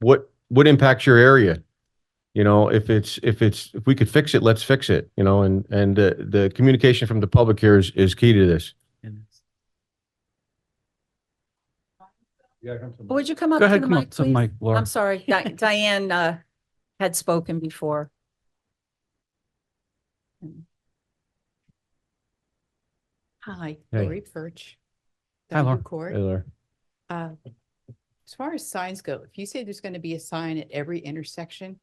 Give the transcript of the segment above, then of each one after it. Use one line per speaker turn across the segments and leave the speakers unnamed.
what, what impacts your area? You know, if it's, if it's, if we could fix it, let's fix it, you know, and, and uh, the communication from the public here is, is key to this.
Would you come up
Go
to
ahead,
the
come up
mic,
to the
please?
mic, Laura.
I'm sorry, Di- Diane, uh, had spoken before.
Hi,
Hey.
Lori Perch.
Hi, Laura.
Diamond Court.
Taylor.
Uh, As far as signs go, if you say there's going to be a sign at every intersection,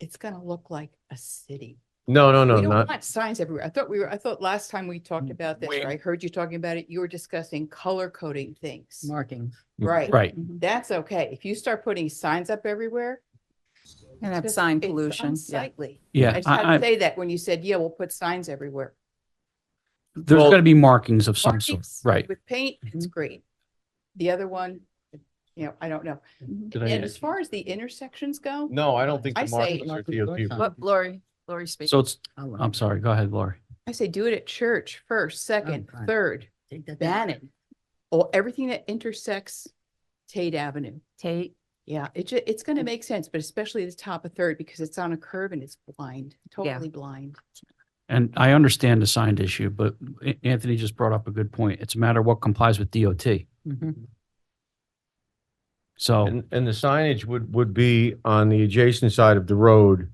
it's going to look like a city.
No, no, no,
We don't
not,
want signs everywhere. I thought we were, I thought last time we talked about this, or I heard you talking about it, you were discussing color coding things.
markings.
Right.
Right.
That's okay. If you start putting signs up everywhere.
And have
it's-
sign
it's
pollution, yeah.
Unsightly. I
Yeah,
just had
I, I,
to say that when you said, yeah, we'll put signs everywhere.
there's
Well-
gonna be markings of some sort,
Markings
right?
With paint, it's
Mm-hmm.
great. The other one, you know, I don't know.
Mm-hmm.
Did
And as far as the intersections go,
no, I don't think
I
the
say-
markings are DOT.
What, Lori, Lori speaking.
So it's, I'm sorry, go ahead, Lori.
I say do it at church first, second,
fine.
third, ban it. Or everything that intersects Tate Avenue.
Tate,
Yeah, it ju- it's gonna make sense, but especially the top of third because it's on a curve and it's blind, totally blind.
And I understand the signed issue, but A- Anthony just brought up a good point. It's a matter of what complies with DOT. So,
And, and the signage would, would be on the adjacent side of the road.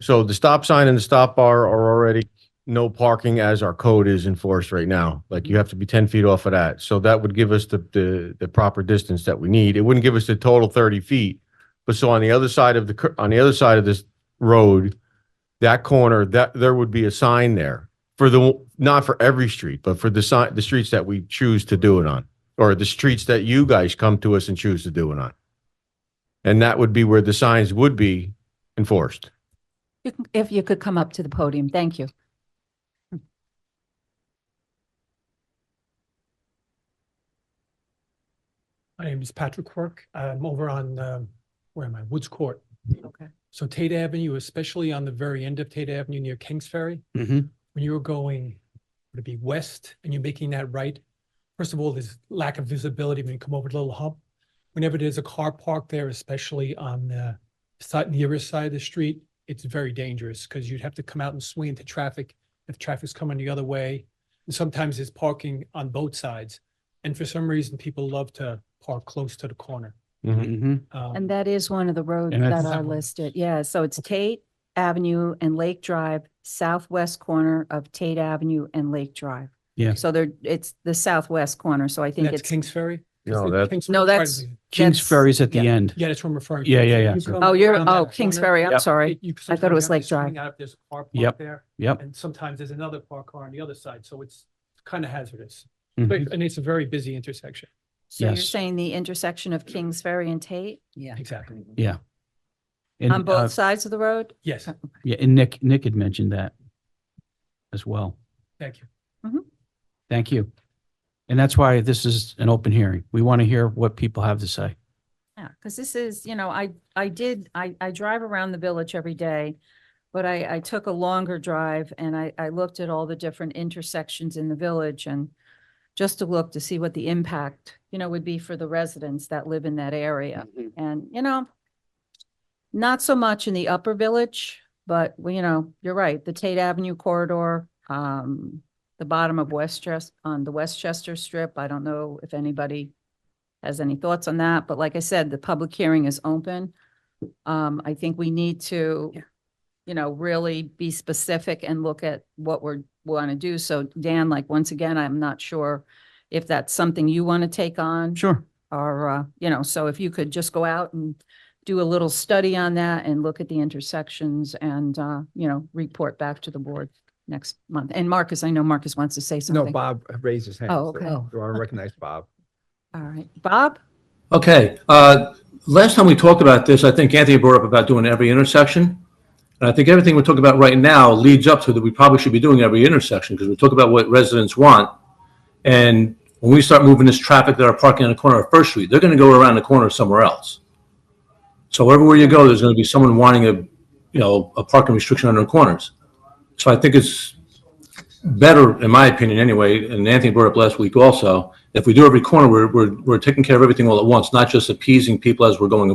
So the stop sign and the stop bar are already no parking as our code is enforced right now. Like you have to be ten feet off of that. So that would give us the, the, the proper distance that we need. It wouldn't give us the total thirty feet. But so on the other side of the, cur- on the other side of this road, that corner, that, there would be a sign there for the, not for every street, but for the sign, the streets that we choose to do it on or the streets that you guys come to us and choose to do it on. And that would be where the signs would be enforced.
you can- if you could come up to the podium, thank you.
My name is Patrick Quirk. I'm over on, um, where am I? Woods Court.
Okay.
So Tate Avenue, especially on the very end of Tate Avenue near Kings Ferry,
Mhm.
when you're going, would it be west and you're making that right? First of all, there's lack of visibility when you come over the little hump. Whenever there's a car parked there, especially on the side, nearer side of the street, it's very dangerous because you'd have to come out and swing into traffic if traffic's coming the other way. And sometimes there's parking on both sides. And for some reason, people love to park close to the corner.
Mhm.
Um,
And that is one of the roads
And
that
that's-
are listed. Yeah, so it's Tate Avenue and Lake Drive, southwest corner of Tate Avenue and Lake Drive.
Yeah.
So there, it's the southwest corner, so I
and
think
That's
it's,
Kings Ferry?
No,
Is it
that-
Kings
No,
Ferry?
that's-
Pardon me.
Kings
That's-
Ferries at the
yeah.
end.
Yeah, that's what I'm referring to.
Yeah, yeah, yeah.
You come
oh, you're,
around that
oh, Kings
corner,
Ferry, I'm
Yep.
sorry.
you- you
I thought it
sometimes
was
have
Lake
to swing
Drive.
out if there's a car
Yep.
parked there.
Yep.
And sometimes there's another parked car on the other side, so it's kind of hazardous.
Mhm.
But- And it's a very busy intersection.
So you're
Yes.
saying the intersection of Kings Ferry and Tate
Yeah.
Exactly.
And,
on
uh,
both sides of the road?
Yes,
Yeah, and Nick, Nick had mentioned that as well.
thank you.
Thank you. And that's why this is an open hearing. We want to hear what people have to say.
Yeah, because this is, you know, I, I did, I, I drive around the village every day, but I, I took a longer drive and I, I looked at all the different intersections in the village and just to look to see what the impact, you know, would be for the residents that live in that area. And, you know, not so much in the upper village, but, well, you know, you're right, the Tate Avenue corridor, um, the bottom of Westchester, on the Westchester Strip. I don't know if anybody has any thoughts on that, but like I said, the public hearing is open. Um, I think we need to, you know, really be specific and look at what we're, want to do. So Dan, like, once again, I'm not sure if that's something you want to take on
Sure.
or, uh, you know, so if you could just go out and do a little study on that and look at the intersections and, uh, you know, report back to the board next month. And Marcus, I know Marcus wants to say
No,
something.
Bob raised his hand.
Oh,
so-
okay.
So I recognize Bob.
All right. Bob?
Okay, uh, last time we talked about this, I think Anthony brought up about doing every intersection. And I think everything we're talking about right now leads up to that we probably should be doing every intersection because we talk about what residents want. And when we start moving this traffic that are parking on the corner of First Street, they're going to go around the corner somewhere else. So everywhere you go, there's going to be someone wanting a, you know, a parking restriction on their corners. So I think it's better, in my opinion anyway, and Anthony brought up last week also, if we do every corner, we're, we're, we're taking care of everything all at once, not just appeasing people as we're going